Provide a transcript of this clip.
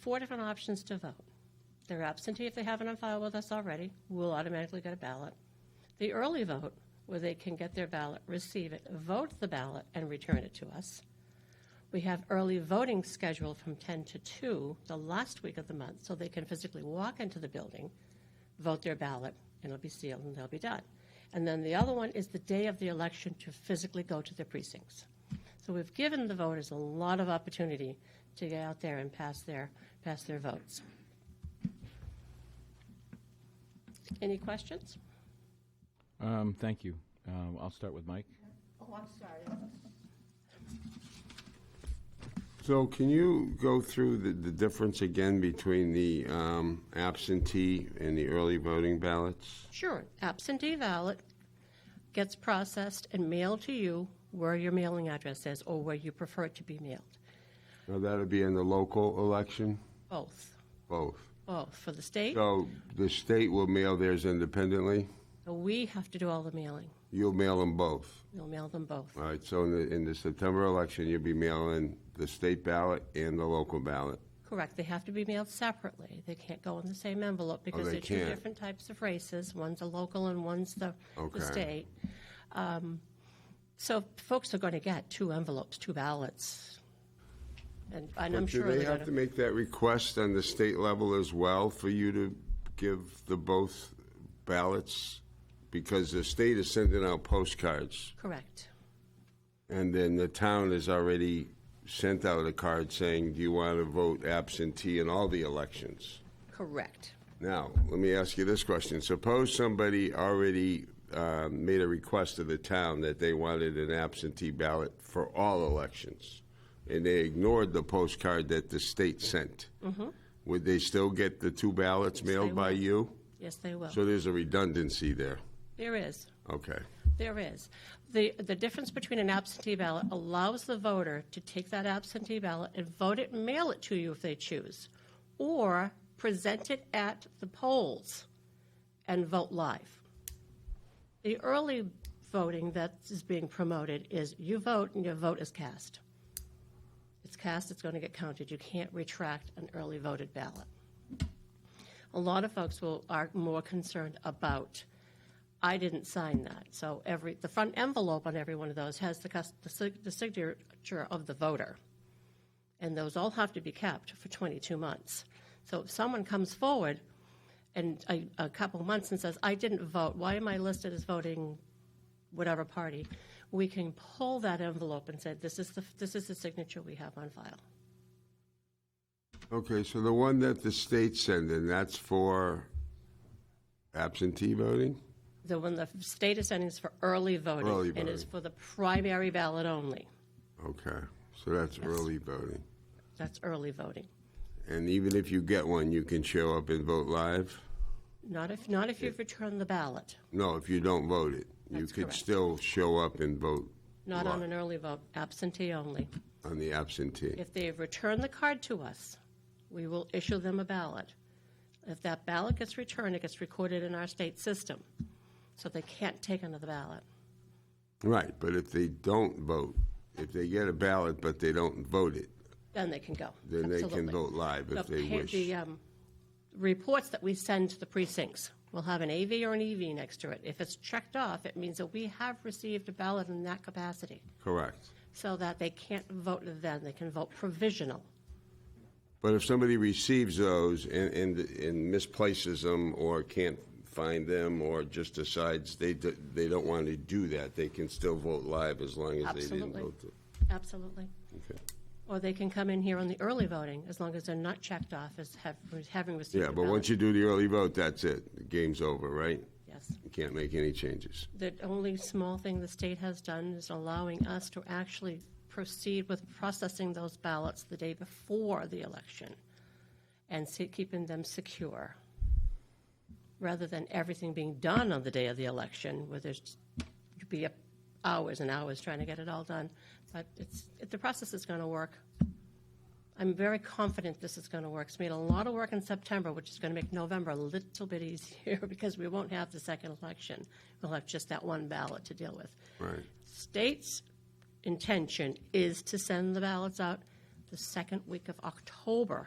four different options to vote. They're absentee if they haven't on file with us already, will automatically get a ballot. The early vote, where they can get their ballot, receive it, vote the ballot, and return it to us. We have early voting scheduled from 10 to 2, the last week of the month, so they can physically walk into the building, vote their ballot, and it'll be sealed and they'll be done. And then the other one is the day of the election to physically go to their precincts. So we've given the voters a lot of opportunity to get out there and pass their, pass their votes. Any questions? Um, Thank you. Um, I'll start with Mike. Oh, I'm sorry. So can you go through the, the difference again between the um, absentee and the early voting ballots? Sure. Absentee ballot gets processed and mailed to you where your mailing address is or where you prefer it to be mailed. Now, that'll be in the local election, Both. both. Both. For the state, So the state will mail theirs independently, we have to do all the mailing. you'll mail them both. We'll mail them both. All right, so in the, in the September election, you'll be mailing the state ballot and the local ballot. Correct. They have to be mailed separately. They can't go in the same envelope because Oh, they they're two can't. different types of races. One's a local and one's the, Okay. the state. Um, so folks are going to get two envelopes, two ballots. And, and I'm But sure Do they they're have to going to. make that request on the state level as well for you to give the both ballots? Because the state is sending out postcards, Correct. and then the town has already sent out a card saying, do you want to vote absentee in all the elections? Correct. Now, let me ask you this question. Suppose somebody already um, made a request to the town that they wanted an absentee ballot for all elections, and they ignored the postcard that the state sent. Would they still get the two ballots mailed by will. you? Yes, they will. So there's a redundancy there. There is. Okay. There is. The, the difference between an absentee ballot allows the voter to take that absentee ballot and vote it and mail it to you if they choose, or present it at the polls and vote live. The early voting that is being promoted is you vote and your vote is cast. It's cast, it's going to get counted. You can't retract an early voted ballot. A lot of folks will, are more concerned about I didn't sign that. So every, the front envelope on every one of those has the, cus- the sig- the signature of the voter. And those all have to be kept for 22 months. So if someone comes forward and a, a couple months and says, I didn't vote, why am I listed as voting whatever party? We can pull that envelope and say, this is the, this is the signature we have on file. Okay, so the one that the state sent in, that's for absentee voting? The one the state is sending is for early voting. Early And it's voting. for the primary ballot only. Okay, so that's early voting. That's early voting. And even if you get one, you can show up and vote live? Not if, not if you've returned the ballot, No, if you don't vote it, you That's could correct. still show up and vote not on Right. an early vote, absentee only. on the absentee. If they have returned the card to us, we will issue them a ballot. If that ballot gets returned, it gets recorded in our state system, so they can't take another ballot. Right, but if they don't vote, if they get a ballot but they don't vote it, Then they can go. then they can Absolutely. vote live if The they pa- The wish. um, reports that we send to the precincts will have an AV or an EV next to it. If it's checked off, it means that we have received a ballot in that capacity, Correct. so that they can't vote then, they can vote provisional. But if somebody receives those and, and, and misplaces them or can't find them or just decides they, d- they don't want to do that, they can still vote live as long as they didn't Absolutely. vote. it. Absolutely. Okay. Or they can come in here on the early voting, as long as they're not checked off as have, having received. Yeah, a but ballot. once you do the early vote, that's it. The game's over, right? Yes. You can't make any changes. The only small thing the state has done is allowing us to actually proceed with processing those ballots the day before the election and se- keeping them secure, rather than everything being done on the day of the election, where there's, you'd be up hours and hours trying to get it all done. But it's, it- the process is going to work. I'm very confident this is going to work. It's made a lot of work in September, which is going to make November a little bit easier because we won't have the second election. We'll have just that one ballot to deal with. Right. State's intention is to send the ballots out the second week of October